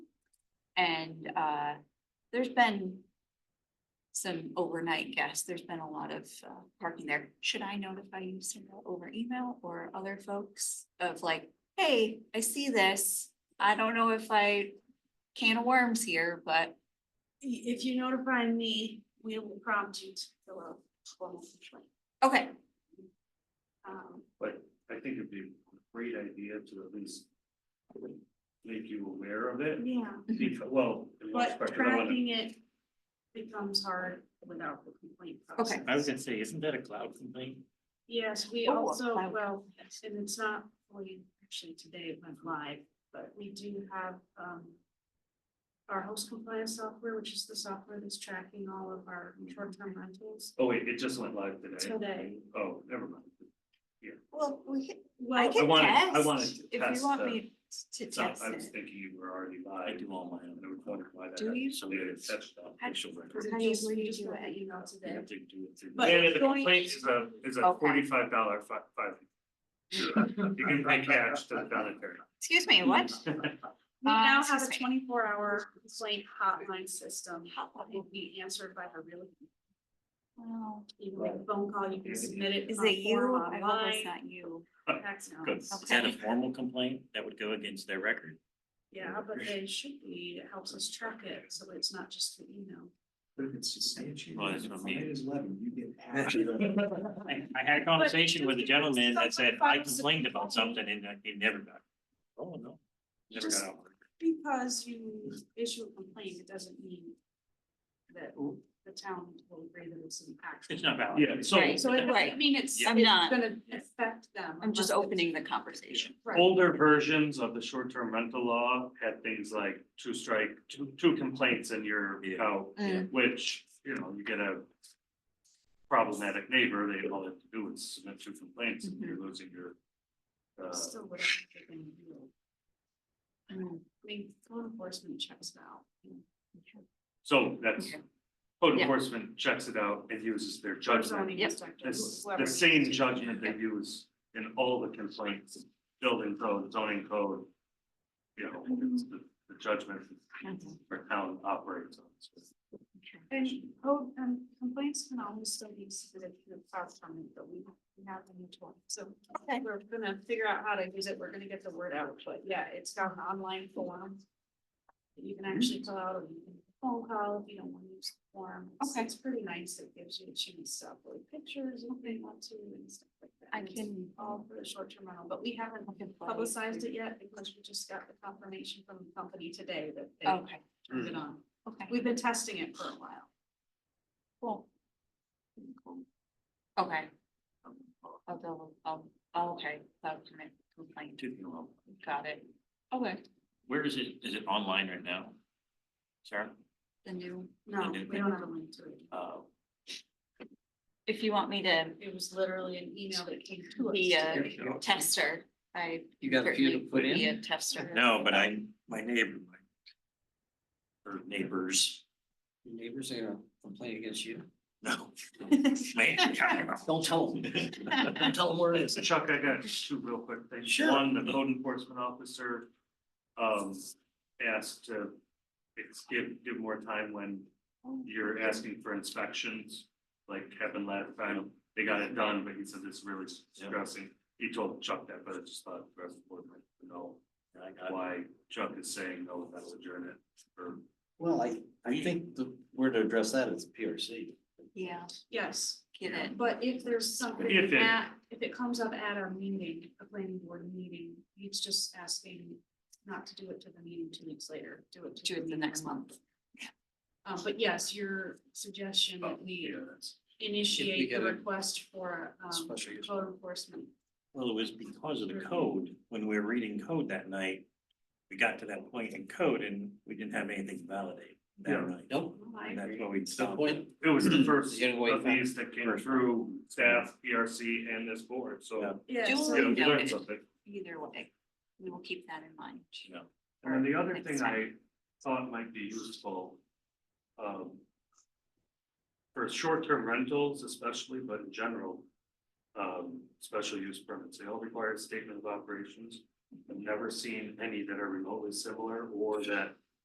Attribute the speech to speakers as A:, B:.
A: And uh, there's been some overnight guests. There's been a lot of uh, parking there. Should I notify you Cinderella, over email or other folks of like, hey, I see this. I don't know if I can of worms here, but
B: If you notify me, we will prompt you to fill out a formal complaint.
A: okay,
B: Um,
C: But I think it'd be a great idea to at least make you aware of it.
B: yeah,
C: Because, well. I mean,
B: but
C: especially when-
B: tracking it becomes hard without the complaint process.
A: Okay.
D: I was gonna say, isn't that a cloud complaint?
B: Yes, we
A: Oh,
B: also,
A: wow.
B: well, and it's not, fully actually today it went live, but we do have, um. Our host compliance software, which is the software that's tracking all of our short-term rentals
C: Oh, wait, it just went live today.
B: today.
C: Oh, never mind.
A: well, we can, I
B: Well,
A: can
C: wanted- I
A: test.
C: wanted to
A: If
C: test
A: you want
C: the-
A: me to
C: So
A: test
C: I was
A: it.
C: thinking you were already live.
D: I do all mine.
C: And I was wondering why that.
A: Do
C: happened.
A: you?
C: So we had to touch on
A: I-
C: official record.
A: How
B: It
A: do you-
B: just-
A: where do
B: we
A: you
B: just
A: do
B: got
A: it?
B: the Email today.
D: have to do it through-
B: But
C: And the
B: going-
C: complaint is a, is a
A: Okay.
C: forty-five dollar fi- five. You can pay cash to the counter.
A: Excuse
C: Hmm.
A: me, what?
B: We now
A: Uh,
B: have a
A: excuse
B: twenty-four hour complaint hotline system, that will be answered by a real,
A: Wow.
B: even like a phone call, you can submit it.
A: Is
B: on
A: it you?
B: form
A: I hope it's
B: online.
A: not you.
B: Text, no.
D: Good. Is that a formal complaint that would go against their record?
B: Yeah, but they should be, it helps us track it, so it's not just the email.
D: Well, that's what I mean.
C: Well,
D: I, I had a conversation with a gentleman that said, I complained about something and I- it never got. Oh, no. Never got out.
B: Because you issue a complaint, it doesn't mean that the town will agree that it's an action.
D: It's not valid.
C: Yeah, so-
A: Right.
B: So it
A: Right.
B: doesn't mean it's, it's
A: I'm not.
B: gonna affect them.
A: I'm just
B: unless it's-
A: opening the conversation.
B: Right,
C: Older versions of the short-term rental law had things like two strike, two, two complaints and you're
D: Yeah.
C: out,
A: Mm.
C: which, you know, you get a problematic neighbor, they all have to do is submit two complaints and
A: Mm-hmm.
C: you're losing your uh,
B: still whatever they're gonna do.
A: Mm.
B: I mean, code enforcement checks it out.
C: so that's
A: Okay.
C: code
A: Yeah.
C: enforcement checks it out and uses their judgment.
B: Zoning
A: Yep.
B: inspector,
C: It's
B: whoever
C: the
B: needs
C: same
B: to.
C: judgment they use in all the complaints, building code, zoning code. You know,
B: Mm-hmm.
C: it's the, the judgment
A: Mhm.
C: our town operates on.
B: And code, um, complaints can always still be submitted to the platform, but we we have a new tool, so.
A: Okay.
B: We're gonna figure out how to use it, we're gonna get the word out, but yeah, it's got an online form. that You can actually fill out, or you can phone call if you don't wanna use the form. It's-
A: Okay.
B: It's pretty nice, it gives you a chance to upload pictures, if they want to, and stuff like that.
A: I
B: And it's
A: can-
B: All for the short-term rental, but we haven't
A: I can play.
B: publicized it yet, because we just got the confirmation from the company today that they
A: Okay,
B: turned it on.
A: okay.
B: We've been testing it for a while.
A: Cool. Okay. I'll double, I'll, oh, okay, that's my complaint,
D: Two people.
A: got it. Okay.
D: Where is it? Is it online right now? Sarah?
A: The new,
B: No,
D: Okay.
B: we don't have a link to it.
D: Uh,
A: if you want me to
B: It was literally an email that came to us.
A: be a
D: Here we go.
A: tester, I
E: You got a few to
A: certainly would
E: put
A: be
E: in?
A: a tester.
D: No, but I, my neighbor, my or neighbors,
E: Your Neighbors are gonna complain against you.
D: no. Man,
E: Don't tell them. Don't tell them where it is.
C: So Chuck, I got two real quick things.
E: Sure.
C: One, the code enforcement officer um asked to it's give give more time when you're asking for inspections, like happened last time. They got it done, but he said it's really stressing. He told Chuck that, but I just thought the rest of the board might know
D: I got it.
C: why Chuck is saying no, that'll adjourn it. Or
E: Well, I, I think the, where to address that is PRC.
A: Yeah,
B: Yes,
A: get it.
B: but if there's
C: If
B: something
C: it-
B: at, if it comes up at our meeting, a planning board meeting, he's just asking not to do it to the meeting two weeks later, do it. to
A: Do it the next
B: meeting.
A: month.
B: Uh, but yes, your suggestion
C: Oh,
B: that we
C: yeah, that's-
B: initiate the
E: get a
B: request for, um,
E: special use.
B: code enforcement.
D: Well, it was because of the code, when we were reading code that night, we got to that point in code and we didn't have anything to validate
C: Yeah.
D: that night.
E: Nope.
D: And that's what we
E: It's the
D: stopped.
E: point.
C: It was the first
E: Getting away
C: of
E: from-
C: these that came through staff, PRC and this board,
D: Yeah.
C: so.
B: Yeah,
A: Do
B: so-
C: You know, you learn
A: Noted.
C: something.
A: Either way, we will keep that in mind.
D: Yeah.
C: And then the other
A: Next
C: thing I
A: time.
C: thought might be useful. Um. For short-term rentals especially, but in general. Um, special use permits, they all require a statement of operations. I've never seen any that are remotely similar or that